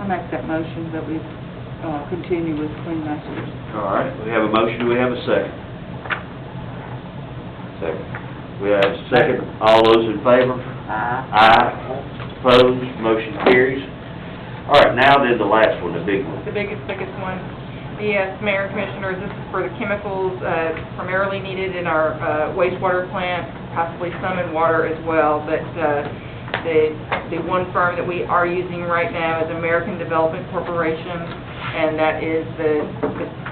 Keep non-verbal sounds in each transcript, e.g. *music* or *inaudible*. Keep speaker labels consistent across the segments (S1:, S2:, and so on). S1: I make that motion that we uh, continue with Queen Masters.
S2: All right, we have a motion, do we have a second? Second. We have a second, all those in favor? Aye. Opposed, motion carries. All right, now then the last one, the big one.
S3: the biggest, biggest one. Yes, Mayor Commissioners, this is for the chemicals uh, primarily needed in our uh, wastewater plant, possibly some in water as well, but uh, the, the one firm that we are using right now is American Development Corporation, and that is the, the-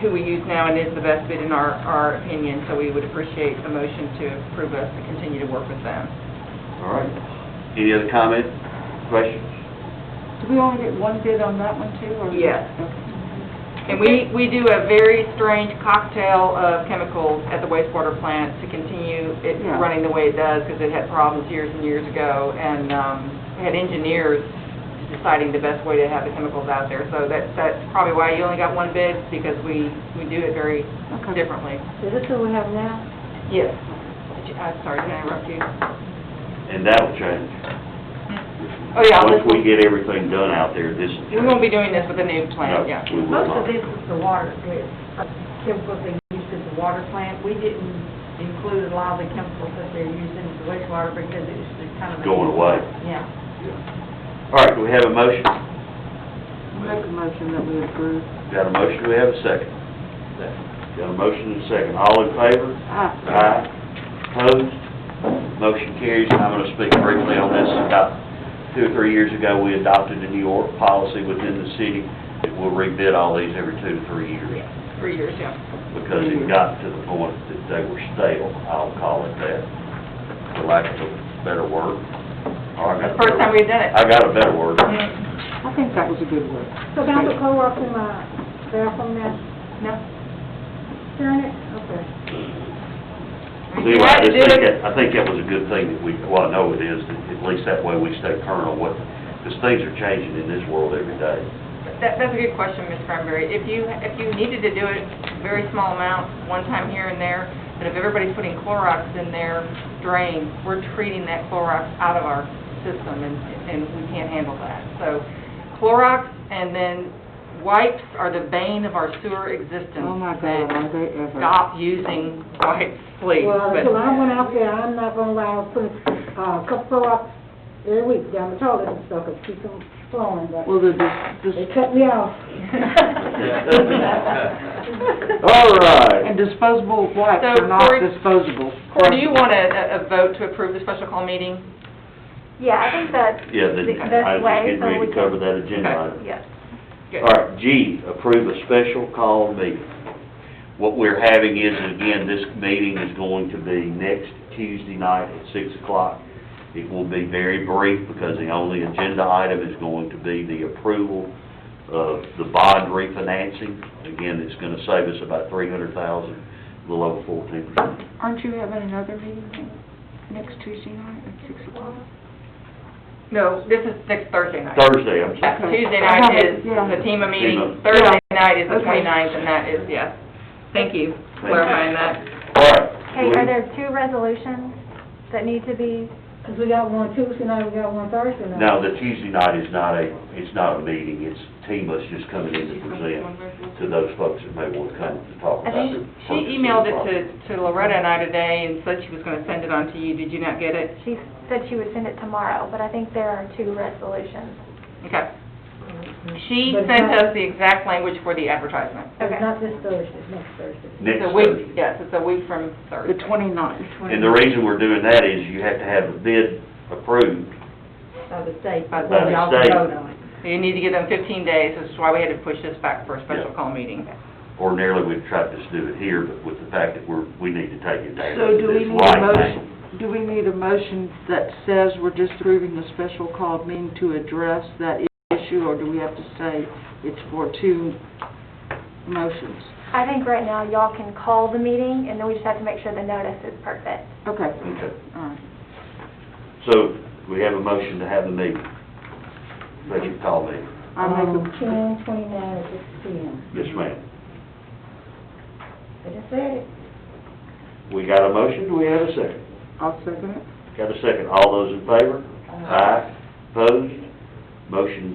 S3: who we use now and is the best bid in our, our opinion, so we would appreciate a motion to approve us to continue to work with them.
S2: All right. Any other comment, questions?
S1: Do we only get one bid on that one too, or?
S3: Yes.
S1: Okay.
S3: And we, we do a very strange cocktail of chemicals at the wastewater plant to continue it
S1: Yeah.
S3: running the way it does, because it had problems years and years ago, and um, had engineers deciding the best way to have the chemicals out there. So that, that's probably why you only got one bid, because we, we do it very
S1: Okay.
S3: differently.
S4: Is this what we have now?
S3: Yes. I'm sorry, can I interrupt you?
S2: And that'll change.
S3: Oh, yeah,
S2: Once
S3: this-
S2: we get everything done out there, this will change.
S3: We won't be doing this with a new
S2: No,
S3: plant, yeah.
S2: we will
S4: Most
S2: not.
S4: of this is the water, the chemicals they use at the water plant. We didn't include a lot of the chemicals that they're using at the wastewater because it's just kind of.
S2: Going away.
S4: Yeah.
S2: All right, do we have a motion?
S1: Make a motion that we approve.
S2: Got a motion, do we have a second? Got a motion and a second, all in favor?
S1: Ah,
S2: Aye. Opposed? Motion carries. And I'm going to speak briefly on this. About two or three years ago, we adopted a New York policy within the city that we'll rebid all these every two to three years
S3: Three years, yeah.
S2: because it got to the point that they were stale, I'll call it that, for lack of a better word. Or I got a
S3: The first time
S2: better-
S3: we've done it.
S2: I got a better word.
S3: Mm,
S1: I think that was a good word.
S5: So down the co-op in the bathroom now,
S3: No.
S5: turn it, okay.
S2: See, I just think that, I think that was a good thing that we, well, I know it is, that at least that way we stay current on what, because things are changing in this world every
S3: *laughs*
S2: day.
S3: That, that's a good question, Ms. Cranberry. If you, if you needed to do it very small amount, one time here and there, but if everybody's putting Clorox in their drain, we're treating that Clorox out of our system, and, and we can't handle that. So Clorox and then wipes are the bane of our sewer existence.
S1: Oh, my God, are they ever.
S3: Stop using wipes, please.
S5: Well,
S3: but-
S5: until I went out there, I'm not gonna allow put uh, a couple of, every week down the toilet and stuff, and keep them flowing, but
S1: Well, the, the,
S5: they cut me off. *laughs*
S2: All right.
S1: *laughs* and disposable wipes
S3: So,
S1: are not
S3: Cory-
S1: disposable.
S3: Cory, do you want a, a vote to approve the special call meeting?
S6: Yeah, I think that,
S2: Yeah, the,
S6: The best
S2: I was
S6: way,
S2: just getting
S6: so
S2: ready
S6: we
S2: to
S6: can-
S2: cover that agenda item.
S6: yes.
S3: Good.
S2: All right, G, approve a special call meeting. What we're having is, and again, this meeting is going to be next Tuesday night at six o'clock. It will be very brief because the only agenda item is going to be the approval of the bond refinancing. Again, it's gonna save us about three hundred thousand, a little over fourteen percent.
S1: Aren't you having another meeting next Tuesday night at six o'clock?
S3: No, this is next Thursday night.
S2: Thursday, I'm sorry.
S1: Okay.
S3: Tuesday night is the TEMA meeting, Thursday night is the
S1: Okay.
S3: 29th, and that is, yes. Thank you
S2: Thank you.
S3: for clarifying that.
S2: All right.
S6: Hey, are there two resolutions that need to be,
S5: Because we got one Tuesday night, we got one Thursday night.
S2: No, the Tuesday night is not a, it's not a meeting, it's Tima's just coming in to present to those folks that may want to come to talk
S6: I
S2: about
S6: think
S2: it.
S3: She emailed it to, to Loretta and I today and said she was going to send it on to you. Did you not get it?
S6: she said she would send it tomorrow, but I think there are two resolutions.
S3: Okay. She
S5: But it's
S3: sent
S5: not-
S3: us the exact language for the advertisement.
S6: Okay.
S5: It's not this Thursday, it's next Thursday.
S2: Next
S3: It's a week-
S2: Thursday.
S3: Yes, it's a week from Thursday.
S1: The twenty-ninth.
S2: And the reason we're doing that is you have to have the bid approved.
S5: By the state,
S3: By the
S5: before y'all
S2: state.
S5: vote on it.
S3: So You need to give them 15 days, which is why we had to push this back for a special
S2: Yeah.
S3: call meeting.
S2: Ordinarily, we'd try to just do it here, but with the fact that we're, we need to take it down.
S1: So do we
S2: It's
S1: need a
S2: right now.
S1: motion, do we need a motion that says we're just approving the special call meeting to address that issue, or do we have to say it's for two motions?
S6: I think right now y'all can call the meeting, and then we just have to make sure the notice is perfect.
S1: Okay,
S2: Okay,
S1: all right.
S2: so we have a motion to have the meeting. Special call meeting.
S1: I make
S5: Um,
S1: a,
S5: ten twenty-nine at six P M.
S2: Yes, ma'am.
S5: I just said it.
S2: We got a motion, do we have a second?
S1: I'll second it.
S2: Got a second, all those in favor? Aye. Opposed? Motion